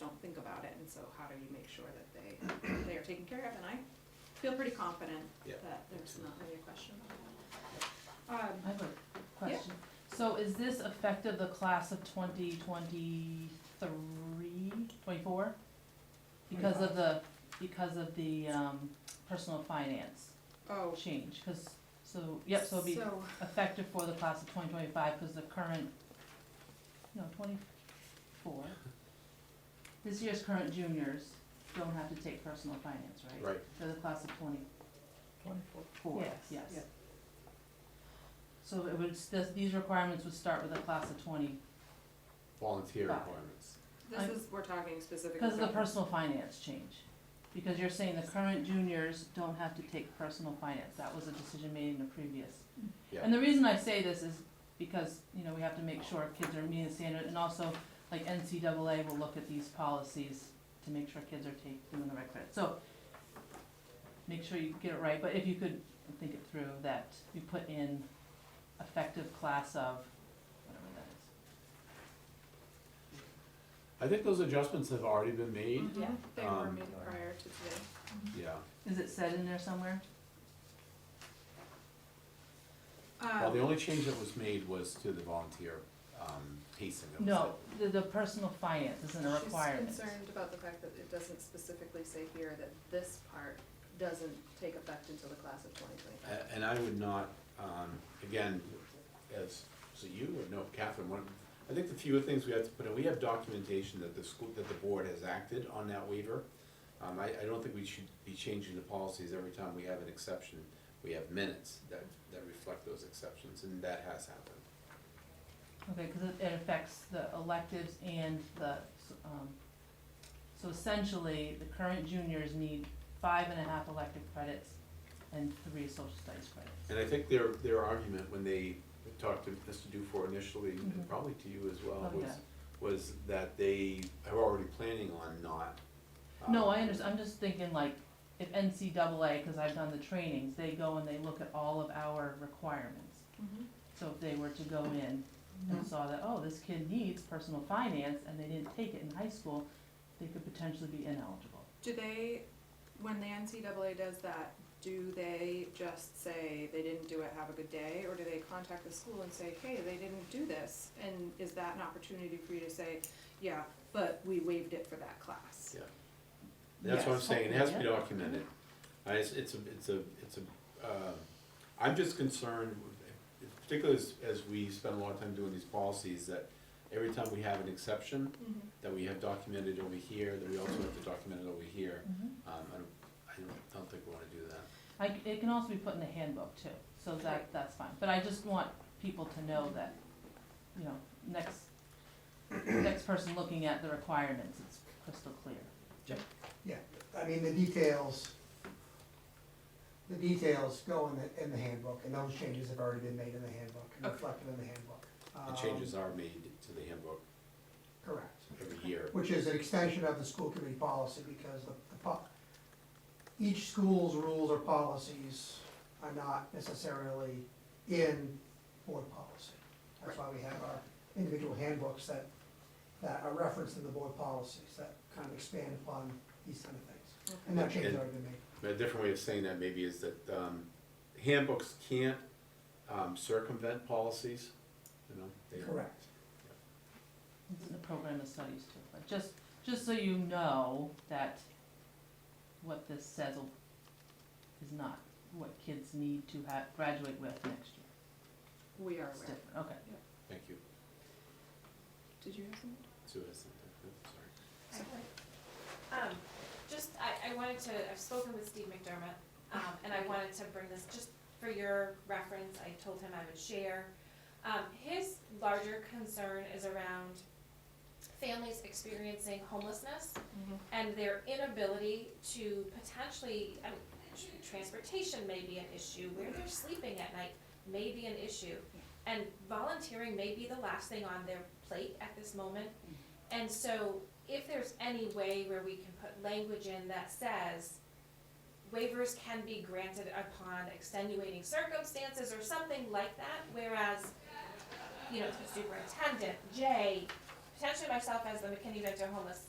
don't think about it, and so how do you make sure that they, they are taken care of? And I feel pretty confident Yeah. that there's not really a question about that. Um, I have a question. So is this effective the class of 2023, 24? Because of the, because of the um, personal finance Oh, change, because, so, yep, so it'll be So, effective for the class of 2025, because the current, no, 24. This year's current juniors don't have to take personal finance, right? Right. For the class of 20, Twenty-four. Four, Yes. yes. Yep. So it would, this, these requirements would start with a class of twenty, Volunteer Five. requirements. this I'm- is, we're talking specifically. because of the about- personal finance change. Because you're saying the current juniors don't have to take personal finance, that was a decision made in the previous. Yeah. And the reason I say this is because, you know, we have to make sure kids are meeting the standard, and also, like NCAA will look at these policies to make sure kids are taking, doing the right credit, so. Make sure you get it right, but if you could think it through, that you put in effective class of, whatever that is. I think those adjustments have already been made, Mm-hmm. Yeah, they were Um, made prior to today. yeah. Is it said in there somewhere? Well, the Um, only change that was made was to the volunteer, um, pacing. That was No, the, the personal finance isn't a requirement. She's concerned about the fact that it doesn't specifically say here that this part doesn't take effect until the class of twenty it. twenty-five. A- And I would not, um, again, as, so you or no, Catherine, one, I think the few things we have to put in, we have documentation that the school, that the board has acted on that waiver. Um, I, I don't think we should be changing the policies every time we have an exception. We have minutes that, that reflect those exceptions, and that has happened. Okay, cause it, it affects the electives and the, um, so essentially, the current juniors need five and a half elective credits and three social studies credits. And I think their, their argument when they talked to Mr. Dufour initially, and Mhm. probably to you as well, Oh, was, yeah. was that they are already planning on not. um, No, I understand, I'm just thinking like, if NCAA, cause I've done the trainings, they go and they look at all of our requirements. Mm-hmm. So if they were to go in and saw that, oh, this kid needs personal finance, and they didn't take it in high school, they could potentially be ineligible. Do they, when the NCAA does that, do they just say they didn't do it, have a good day? Or do they contact the school and say, hey, they didn't do this? And is that an opportunity for you to say, yeah, but we waived it for that class? Yeah. That's what I'm Yes. saying, it has to be Yeah. documented. I, it's, it's a, it's a, it's a, uh, I'm just concerned, with- particularly as, as we spend a lot of time doing these policies, that every time we have an exception, Mm-hmm. that we have documented over here, that we also have to document it over here. Mhm. Um, I don't, I don't, don't think we wanna do that. I, c- it can also be put in the handbook too, so that, Right. that's fine, but I just want people to know that, you know, next, next person looking at the requirements, it's crystal clear. Yeah, I mean, the details, the details go in the, in the handbook, and those changes have already been made in the handbook, and Okay. reflected in the handbook. The Um, changes are made to the handbook Correct, every year. which is an extension of the school committee policy, because the, the po- each school's rules or policies are not necessarily in board policy. That's why we have our individual handbooks that, that are referenced in the board policies, that kind of expand upon these kind of things. And that change has already been made. A different way of saying that maybe is that um, handbooks can't um, circumvent policies, you know? they- Correct. It's in the program of studies too, but just, just so you know that what this says will- is not what kids need to have, graduate with next year. We are It's aware. different, okay. Thank you. Did you have something? Sue has something. Oops, sorry. Um, just, I, I wanted to, I've spoken with Steve McDermott, um, and I wanted to bring this, just for your reference, I told him I would share. Um, his larger concern is around families experiencing homelessness Mm-hmm. and their inability to potentially, I mean, tr- transportation may be an issue, where they're sleeping at night may be an issue. And volunteering may be the last thing on their plate at this moment. And so if there's any way where we can put language in that says waivers can be granted upon extenuating circumstances or something like that, whereas, you know, superintendent, Jay, potentially myself as the McKinney Vento homeless